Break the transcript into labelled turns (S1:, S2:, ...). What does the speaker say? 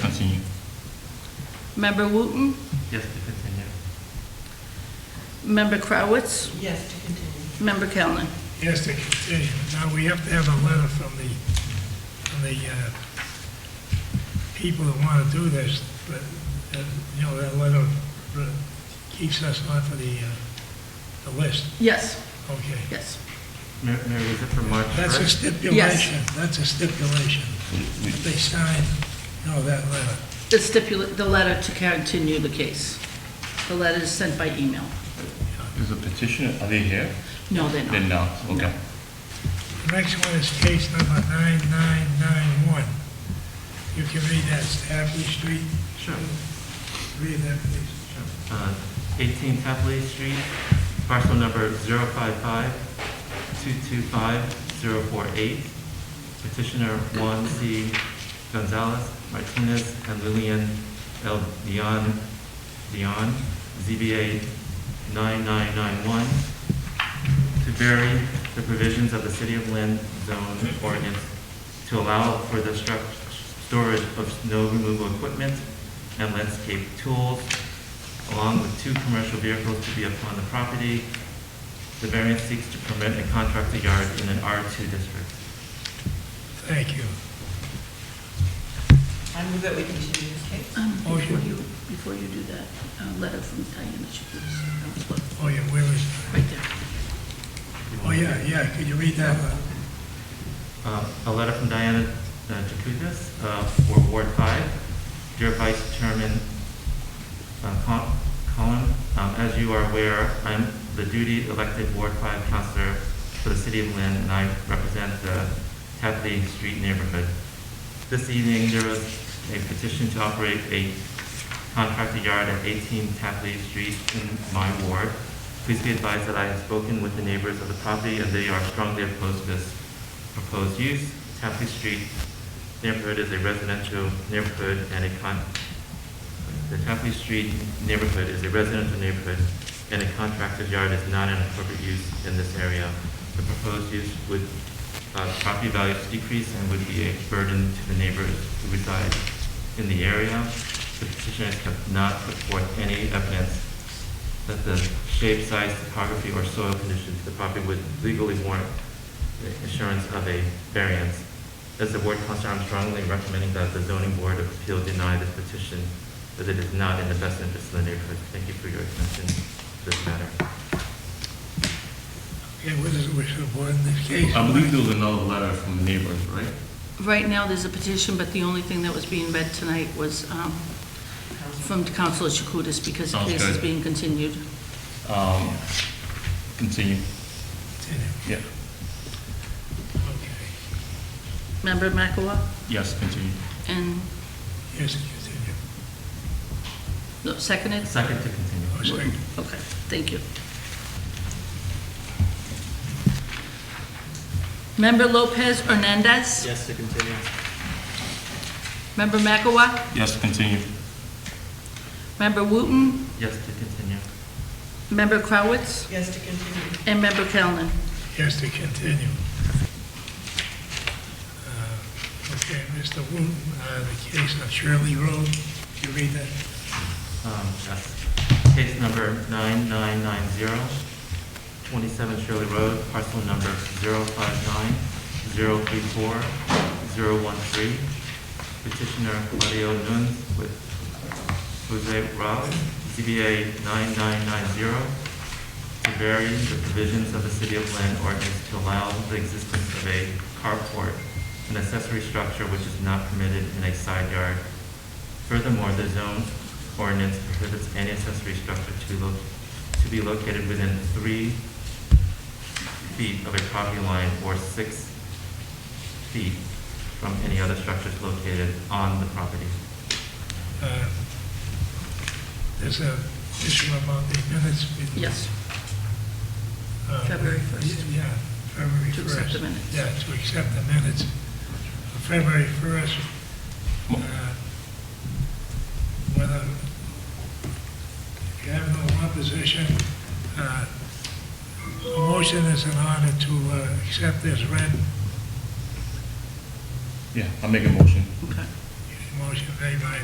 S1: continue.
S2: Member Wooten?
S1: Yes, to continue.
S2: Member Crowitz?
S3: Yes, to continue.
S2: Member Callen?
S4: Yes, to continue. Now, we have to have a letter from the, from the uh, people that want to do this, but, uh, you know, that letter uh, keeps us off of the, uh, the list.
S2: Yes,
S4: Okay.
S2: yes.
S1: Mayor, Mayor, was it for March
S4: That's a
S1: 1st?
S4: stipulation. That's a stipulation. If they sign, you know, that letter.
S2: The stipulate, the letter to continue the case. The letter is sent by email.
S1: Is the petitioner, are they here?
S2: No, they're not.
S1: Then no, okay.
S4: The next one is case number 9991. You can read that, Stapley Street.
S1: Sure.
S4: Read that, please.
S5: Uh, 18 Tapley Street, parcel number 055-225-048. Petitioner Juan C. Gonzalez Martinez and Lillian L. Dion, Dion, ZBA 9991, to vary the provisions of the City of Lynn Zone ordinance to allow for the struct, storage of snow removal equipment and landscape tools along with two commercial vehicles to be upon the property. The variance seeks to permit a contractor yard in an R2 district.
S4: Thank you.
S3: I move that we continue this case.
S2: Um, Before
S4: Motion.
S2: you, before you do that, a letter from Diana Chiklis. That was
S4: Oh, yeah, where is,
S2: what- Right there.
S4: oh, yeah, yeah, could you read that? letter?
S5: Uh, A letter from Diana uh, Jacutis, uh for Ward 5. Dear Vice Chairman uh, Col- Colin, um, as you are aware, I'm the duty elected Ward 5 Counselor for the City of Lynn, and I represent the Tapley Street neighborhood. This evening, there was a petition to operate a contractor yard at 18 Tapley Street in my ward. Please be advised that I have spoken with the neighbors of the property, and they are strongly opposed to this proposed use. Tapley Street neighborhood is a residential neighborhood and a con, the Tapley Street neighborhood is a residential neighborhood and a contractor's yard is not an appropriate use in this area. The proposed use would, uh, property values decrease and would be a burden to the neighbors who reside in the area. The petitioners have not put forth any evidence that the shape, size, topography, or soil conditions of the property would legally warrant the assurance of a variance. As the board counselor, I'm strongly recommending that the zoning board of appeal deny this petition, as it is not in the best interest of the neighborhood. Thank you for your attention to this matter.
S4: Okay, what is the wish of the board in this case?
S1: I believe there was another letter from the neighbors, right?
S2: Right now, there's a petition, but the only thing that was being read tonight was um, from Councilor Chakutis because the
S1: Sounds
S2: case is
S1: good.
S2: being continued.
S1: Um, Continue, yeah.
S4: Okay,
S2: Member Makawa
S1: Yes, continue.
S2: and,
S4: yes, continue.
S2: no, seconded?
S5: Second to continue.
S4: Oh, sorry.
S2: Okay, thank you. Member Lopez Hernandez?
S5: Yes, to continue.
S2: Member Makawa?
S1: Yes, continue.
S2: Member Wooten?
S5: Yes, to continue.
S2: Member Crowitz?
S3: Yes, to continue.
S2: And Member Callen?
S4: Yes, to continue. Uh, Okay, Mr. Wooten, uh, the case of Shirley Road, you read that?
S5: Um, yes. Case number 9990, 27 Shirley Road, parcel number 059-034-013. Petitioner Mario Nunes with Jose Rao, ZBA 9990, to vary the provisions of the City of Lynn ordinance to allow the existence of a carport, an accessory structure which is not permitted in a side yard. Furthermore, the zone ordinance prohibits any accessory structure to lo, to be located within three feet of a property line or six feet from any other structures located on the property.
S4: Uh, There's a issue about the minutes. with-
S2: Yes.
S4: Uh,
S2: February 1st.
S4: Yeah, February
S2: To
S4: 1st.
S2: accept the minutes.
S4: Yeah, to accept the minutes of February 1st.
S1: Mo-
S4: uh, Whether, if you have no opposition, uh, a motion is in order to uh, accept this read.
S1: Yeah, I'll make a motion.
S2: Okay.
S4: Motion made by